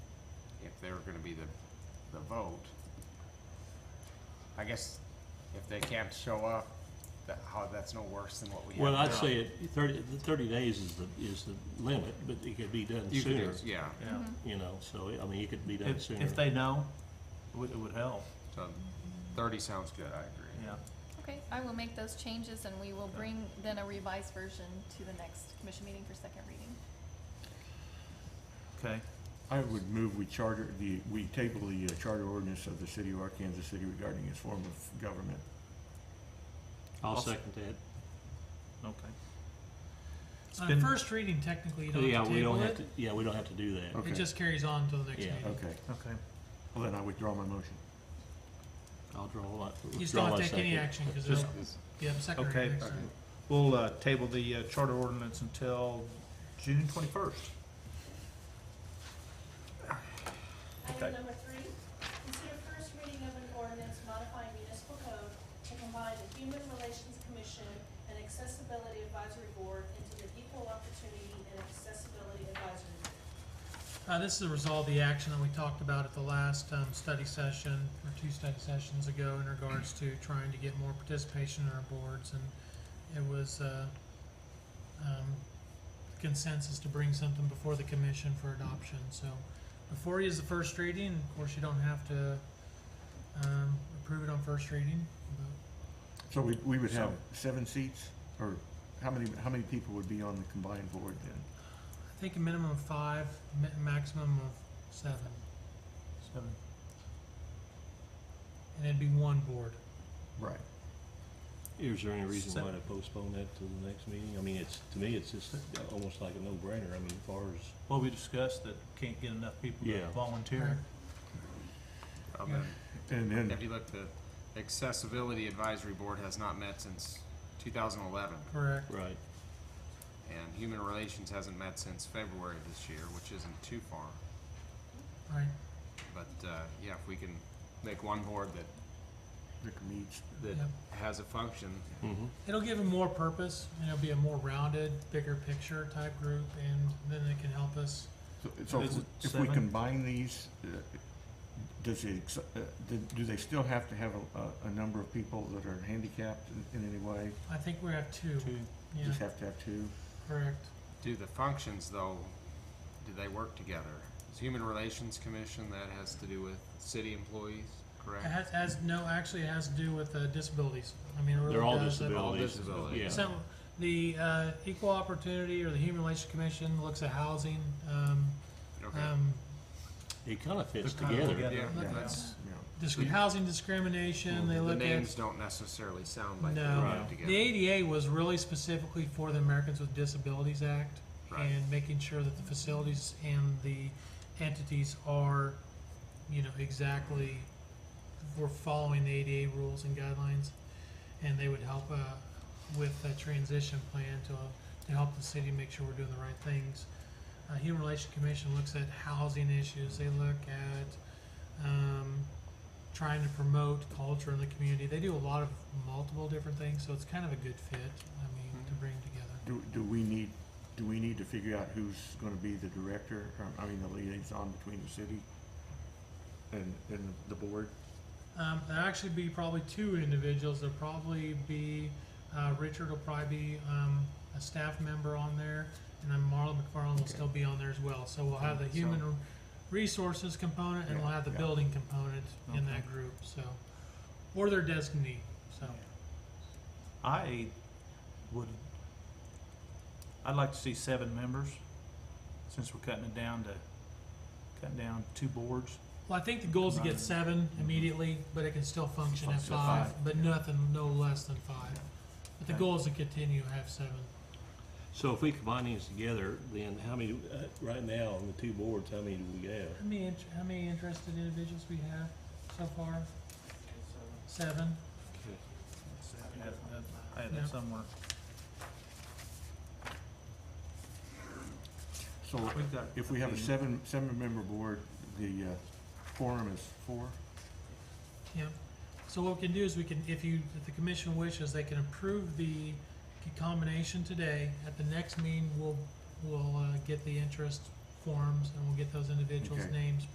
they were gonna be the, the vote. I guess if they can't show up, that, how, that's no worse than what we have now. Well, I'd say it, thirty, the thirty days is the, is the limit, but it could be done You could sooner, do- yeah, Yeah. Mm-hmm. you know, so, I mean, it could be done If, sooner. if they know, it would, it would help, so thirty sounds good, I agree. yeah. Okay, I will make those changes and we will bring then a revised version to the next commission meeting for second reading. Okay, I would move we charter, the, we table the uh, charter ordinance of the city of Arkansas City regarding its form of government. I'll I'll- second that. okay. It's On been- first reading, technically, you don't Yeah, have to we table don't have it. to, yeah, we don't have to do that. Okay. It just carries on until the next Yeah. meeting. Okay, Okay, well then I withdraw my motion. I'll draw a lot. You just draw don't my have to take any second. action, because Just- it'll, you have a second Okay. reading next time. we'll, uh, table the uh, charter ordinance until June twenty-first. Okay. Item number three, consider first reading of an ordinance modifying municipal code to combine the Human Relations Commission and Accessibility Advisory Board into the Equal Opportunity and Accessibility Advisory Board. Uh, this is to resolve the action that we talked about at the last, um, study session, or two study sessions ago in regards to trying to get more participation in our boards, and it was, uh, um, consensus to bring something before the commission for adoption, so before you is the first reading, of course, you don't have to, um, approve it on first reading, but So we, we would have So- seven seats, or how many, how many people would be on the combined board then? I think a minimum of five, ma- maximum of seven, Seven. and it'd be one board. Right. Is there any reason Sec- why to postpone that to the next meeting? I mean, it's, to me, it's just almost like a no-brainer, I mean, as far as. Well, we discussed that can't get enough people to Yeah. volunteer. Um, Yeah. And then, If you look, the Accessibility Advisory Board has not met since two thousand eleven, Correct. Right. and Human Relations hasn't met since February of this year, which isn't too far. Right. But, uh, yeah, if we can make one board that, Rick meets, that Yeah. has a function, Mm-hmm. It'll give them more purpose, and it'll be a more rounded, bigger picture type group, and then it can help us. so- so Is if it we- if we seven? combine these, uh, does it, ex- uh, do- do they still have to have a, a, a number of people that are handicapped in, in any way? I think we have two. Two, Yeah, Just have to have two? correct. do the functions though, do they work together? Is Human Relations Commission, that has to do with city employees, It correct? has, has no, actually, it has to do with uh, disabilities. I mean, it really They're all does. That- All disabilities. disabilities. Yeah. So, the uh, Equal Opportunity or the Human Relations Commission looks at housing. Um, Okay, um, It kinda fits They're kinda together. together. yeah, look at that's, Yeah. disc- Yeah. housing discrimination. They the look at names don't necessarily sound like they're No. right Right. together. The ADA was really specifically for the Americans with Disabilities Act Right. and making sure that the facilities and the entities are, you know, exactly, we're following the ADA rules and guidelines. And they would help, uh, with a transition plan to, to help the city make sure we're doing the right things. Uh, Human Relations Commission looks at housing issues, they look at, um, trying to promote culture in the community. They do a lot of multiple different things, so it's kind of a good fit. I mean, to bring together. Do, do we need, do we need to figure out who's gonna be the director, or, I mean, the liaison between the city and, and the board? Um, there'll actually be probably two individuals. There'll probably be uh, Richard will probably be um, a staff member on there, and then Marla McFarland will Okay. still be on there as well. So we'll have the Okay, so- human resources component, and we'll have the Yeah, yeah. building component in Okay. that group. So, or their designee. So. I would, I'd like to see seven members, since we're cutting it down to, cutting down two boards. Well, I think the goal is to Right. get seven immediately, but it can still function at Function at five, five. but nothing, no less than five. But the Okay. goal is to continue to have seven. So if we combine these together, then how many, uh, right now, on the two boards, how many do we have? How many, int- how many interested individuals we have so far? Seven? I had- I had Yeah. that somewhere. So We've got- if we have a Mhm. seven, seven-member board, the uh, quorum is four? Yep. So what we can do is we can, if you, if the commission wishes, they can approve the combination today. At the next meeting, we'll, we'll, uh, get the interest forms and we'll get those individuals' Okay. names